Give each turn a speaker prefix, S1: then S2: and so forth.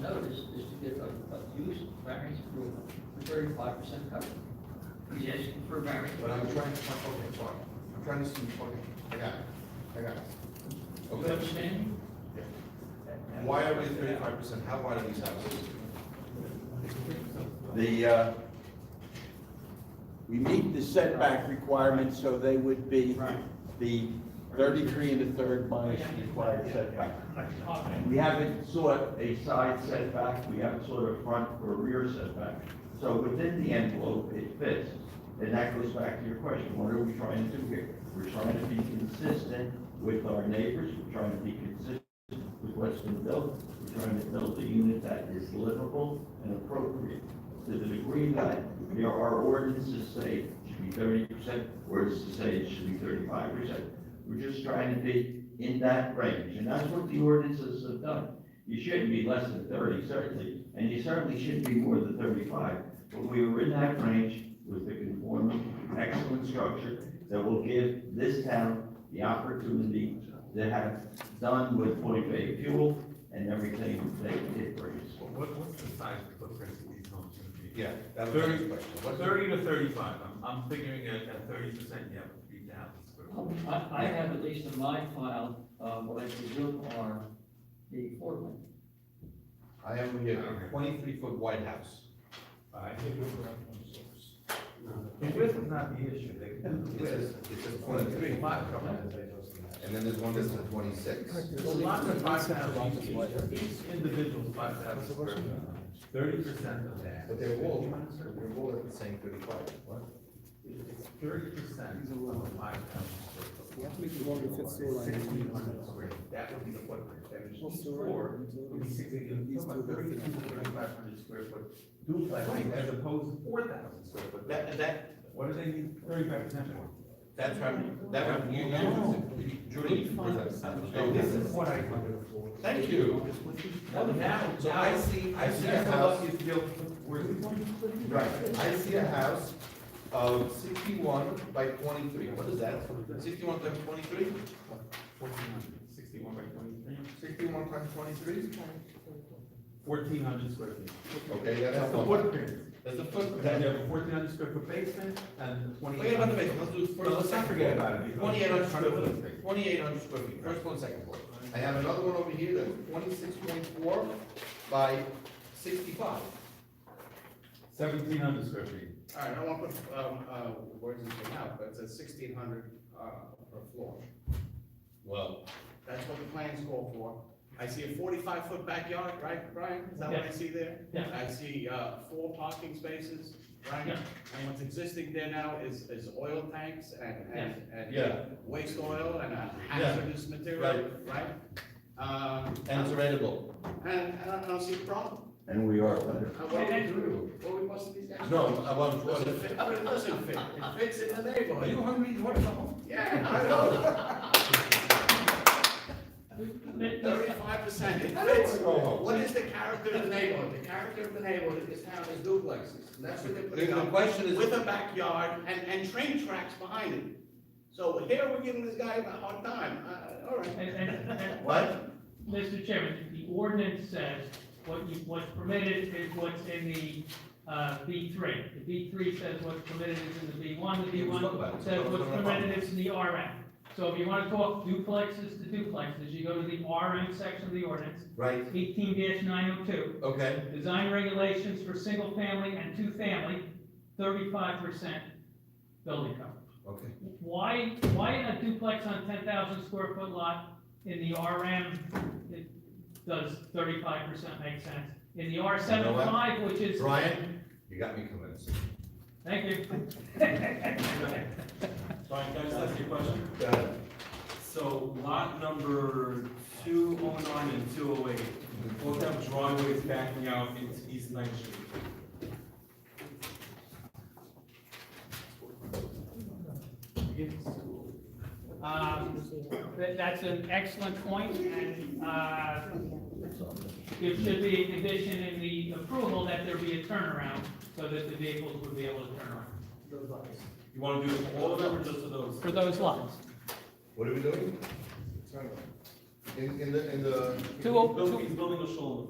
S1: notice is to get a, a use variance approval for thirty-five percent coverage. He's asking for a variance.
S2: But I'm trying to, okay, sorry, I'm trying to see, okay, I got it, I got it.
S1: You
S2: Okay.
S1: understand?
S2: Yeah. Why are we thirty-five percent, how wide are these houses?
S3: The, uh, we meet the setback requirements, so they would be
S1: Right.
S3: the thirty-three and a third minus the required setback. We haven't sought a side setback, we haven't sought a front or rear setback. So within the envelope, it fits. And that goes back to your question, what are we trying to do here? We're trying to be consistent with our neighbors, we're trying to be consistent with what's been built. We're trying to build a unit that is livable and appropriate. To the degree that there are ordinances say it should be thirty percent, ordinances say it should be thirty-five percent. We're just trying to be in that range, and that's what the ordinances have done. You shouldn't be less than thirty, certainly, and you certainly shouldn't be more than thirty-five. But we were in that range with the conforming, excellent structure that will give this town the opportunity to have done with 40 fuel and everything they did for us.
S4: What, what's the size of the footprint of these homes gonna be?
S2: Yeah, that was my question. What's the-
S4: Thirty to thirty-five, I'm, I'm figuring at, at thirty percent, you have three thousand square. feet.
S1: I, I have at least in my file, uh, what I presume are the four one.
S2: I have here a twenty-three foot wide house.
S4: I think we're around one source. The width is not the issue, they can do the
S2: It says,
S4: width.
S2: it says twenty-three, and then there's one that's a twenty-six.
S4: So lots of five thousand, each, each individual five thousand square feet, thirty percent of that.
S2: But they're all, they're all at the same thirty-five. What?
S4: It's thirty percent of five thousand.
S5: have to make it longer fit sewer line.
S4: Sixteen hundred square, feet. that would be the footprint, that
S5: Well,
S4: is
S5: sewer
S4: four,
S5: and
S4: would be
S5: utilities.
S4: sixty, you're talking about thirty to thirty-five hundred square foot duplex, as opposed to four thousand square foot.
S2: That, that,
S4: What do they need thirty-five percent for?
S2: that's right, that, right, you, you, Judy, you present-
S4: So this is what I.
S2: Thank you.
S4: Now, now.
S2: So I see, I see a
S4: That's how
S2: house.
S4: lucky it's built. Where we want to put it.
S2: Right, I see a house of sixty-one by twenty-three, what is that? Sixty-one times twenty-three?
S4: Fourteen hundred, sixty-one by twenty-three,
S2: Sixty-one times twenty-three?
S4: fourteen hundred square feet.
S2: Okay, yeah,
S4: That's
S2: that's
S4: the
S2: one.
S4: footprint.
S2: That's the
S4: And
S2: foot.
S4: Then you have a fourteen hundred square foot basement and twenty.
S2: Forget about the basement, let's do
S4: No,
S2: first.
S4: let's not forget about it.
S2: Twenty-eight hundred square
S4: Hundred
S2: feet, twenty-eight hundred square feet, first floor and second floor. I have another one over here that's twenty-six point four by sixty-five.
S4: Seventeen hundred square feet.
S6: All right, I don't want to put, um, uh, words in your mouth, but it's at sixteen hundred, uh, per floor.
S2: Well.
S6: That's what the plans call for. I see a forty-five foot backyard, right, Brian? Is that what I see there?
S1: Yeah.
S6: I see, uh, four parking spaces, right?
S1: Yeah.
S6: And what's existing there now is, is oil tanks and, and, and.
S2: Yeah.
S6: Waste oil and uh, hazardous material, right? Um,
S2: And it's rentable.
S6: and, and I don't see a problem.
S3: And we are better.
S6: Uh, What are we doing? What are we busting these guys?
S2: No, I want, what
S6: Doesn't
S2: is it?
S6: fit, I mean, it doesn't fit. It fits in the neighborhood.
S2: hungry, you want some?
S6: Yeah, I know. Thirty-five percent, it fits. What is the character of the neighborhood? The character of the neighborhood in this town is duplexes, and that's what they're
S2: The,
S6: putting
S2: the
S6: up.
S2: question is,
S6: With a backyard and, and train tracks behind it. So here we're giving this guy a hard time, uh, all right.
S7: And, and, and,
S2: what?
S7: Mr. Chairman, the ordinance says what you, what's permitted is what's in the, uh, B three. The B three says what's permitted is in the B one, the B
S2: Yeah, we
S7: one
S2: spoke about it.
S7: says
S2: Spoke
S7: what's
S2: about it.
S7: permitted is in the RM. So if you wanna talk duplexes to duplexes, you go to the RM section of the ordinance,
S2: Right,
S7: eighteen nine oh two.
S2: okay,
S7: Design regulations for single family and two family, thirty-five percent building coverage.
S2: okay.
S7: Why, why a duplex on ten thousand square foot lot in the RM, it does thirty-five percent make sense? In the R
S2: know
S7: seven
S2: what?
S7: five, which is.
S2: Brian, you got me convinced.
S7: Thank you.
S8: Brian, can I just ask you a question?
S2: Go ahead.
S8: So lot number two oh nine and two oh eight, both have driveways backing out into East Ninth Street.
S7: Um, that, that's an excellent point, and, uh, there should be a condition in the approval that there be a turnaround, so that the vehicles would be able to turn around,
S8: You wanna do it for all of them or just for those?
S7: for those lots.
S2: What are we doing? In, in the, in the.
S7: Two oh,
S2: oh-
S8: He's building- He's building a shul.